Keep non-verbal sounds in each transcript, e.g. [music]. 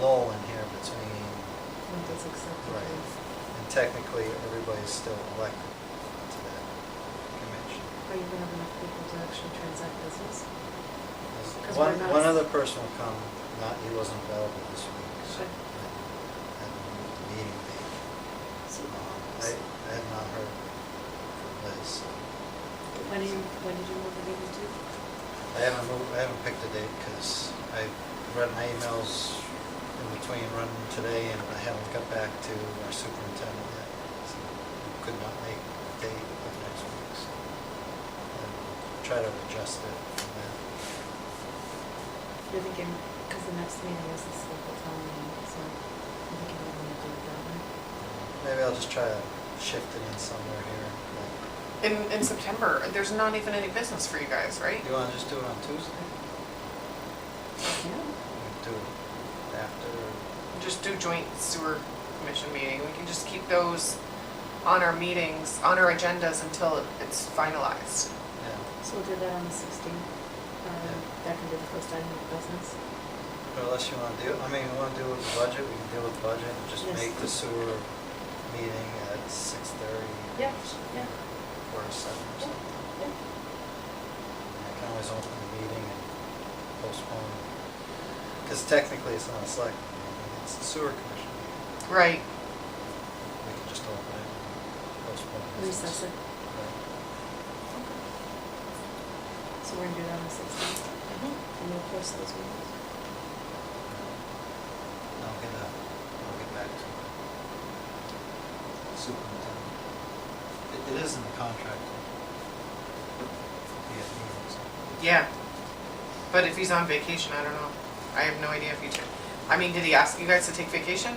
lull in here between, What is acceptable. right, and technically, everybody's still elected to that commission. Are you gonna have enough people to actually transact business? 'Cause One, we're not- one other person will come, not, he wasn't available this week, so I Okay. haven't the meeting date. Um, I, I have not heard from Liz. so. When did you, when did you move the meeting to? I haven't moved, I haven't picked a date because I read my emails in between running today and I haven't got back to our superintendent yet. So I Could not make the date of next week, so I'll try to adjust it from that. You're thinking, because the next meeting is this local town meeting, so I'm thinking we're gonna do it that way. Maybe I'll just try to shift it in somewhere here. like- In, in September, there's not even any business for you guys, right? You wanna just do it on Tuesday? Yeah. Or Do it after, Just do joint sewer commission meeting. We can just keep those on our meetings, on our agendas until it's finalized. yeah, So we'll do that on the sixteenth. Um, that can be the first item of business. Or unless you wanna do, I mean, you wanna deal with the budget, we can deal with the budget and just Yes. make the sewer meeting at six thirty. Yeah, yeah. Or seven or something. I can always open the meeting and postpone. Because technically, it's not a select, meeting, it's the sewer commission. meeting. Right. We can just open it and postpone. it. Recess it. Right. So we're gonna do that on the sixteenth. And we'll post those meetings. I'll get that, I'll get back to the superintendent. It, it is in the contract. Yeah, meetings. Yeah. But if he's on vacation, I don't know. I have no idea if he took, I mean, did he ask you guys to take vacation?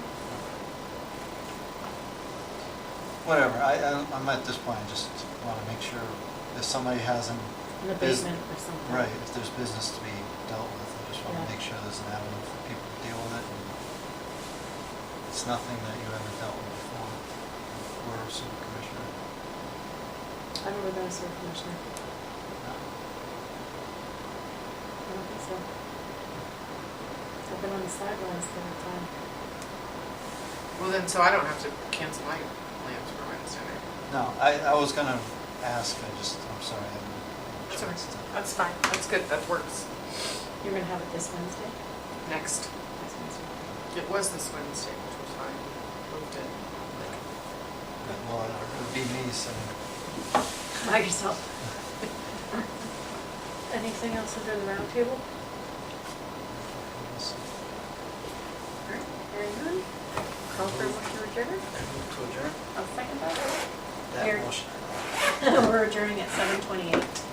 Whatever, I, I- I'm at this point, I just want to make sure if somebody hasn't. An bus- abatement or something. Right, if there's business to be dealt with, I just want Yeah. to make sure there's an avenue for people to deal with it. and It's nothing that you haven't dealt with before, or super commissioner. I've never been a sewer commissioner. I don't think so. I've been on the sidelines the whole time. Well, then, so I don't have to cancel my plans for Wednesday night. No, I, I was gonna ask, I just, I'm sorry, I haven't. That's had a okay. chance to- That's fine. That's good. That works. You're gonna have it this Wednesday? Next. This Wednesday. It was this Wednesday, which was fine. Moved it. Well, it would be me, so, By yourself. Anything else under the roundtable? I Alright, very good. Call for a motion to adjourn? move to adjourn I'll second that. that Here. motion. [laughs] We're adjourning at seven twenty-eight.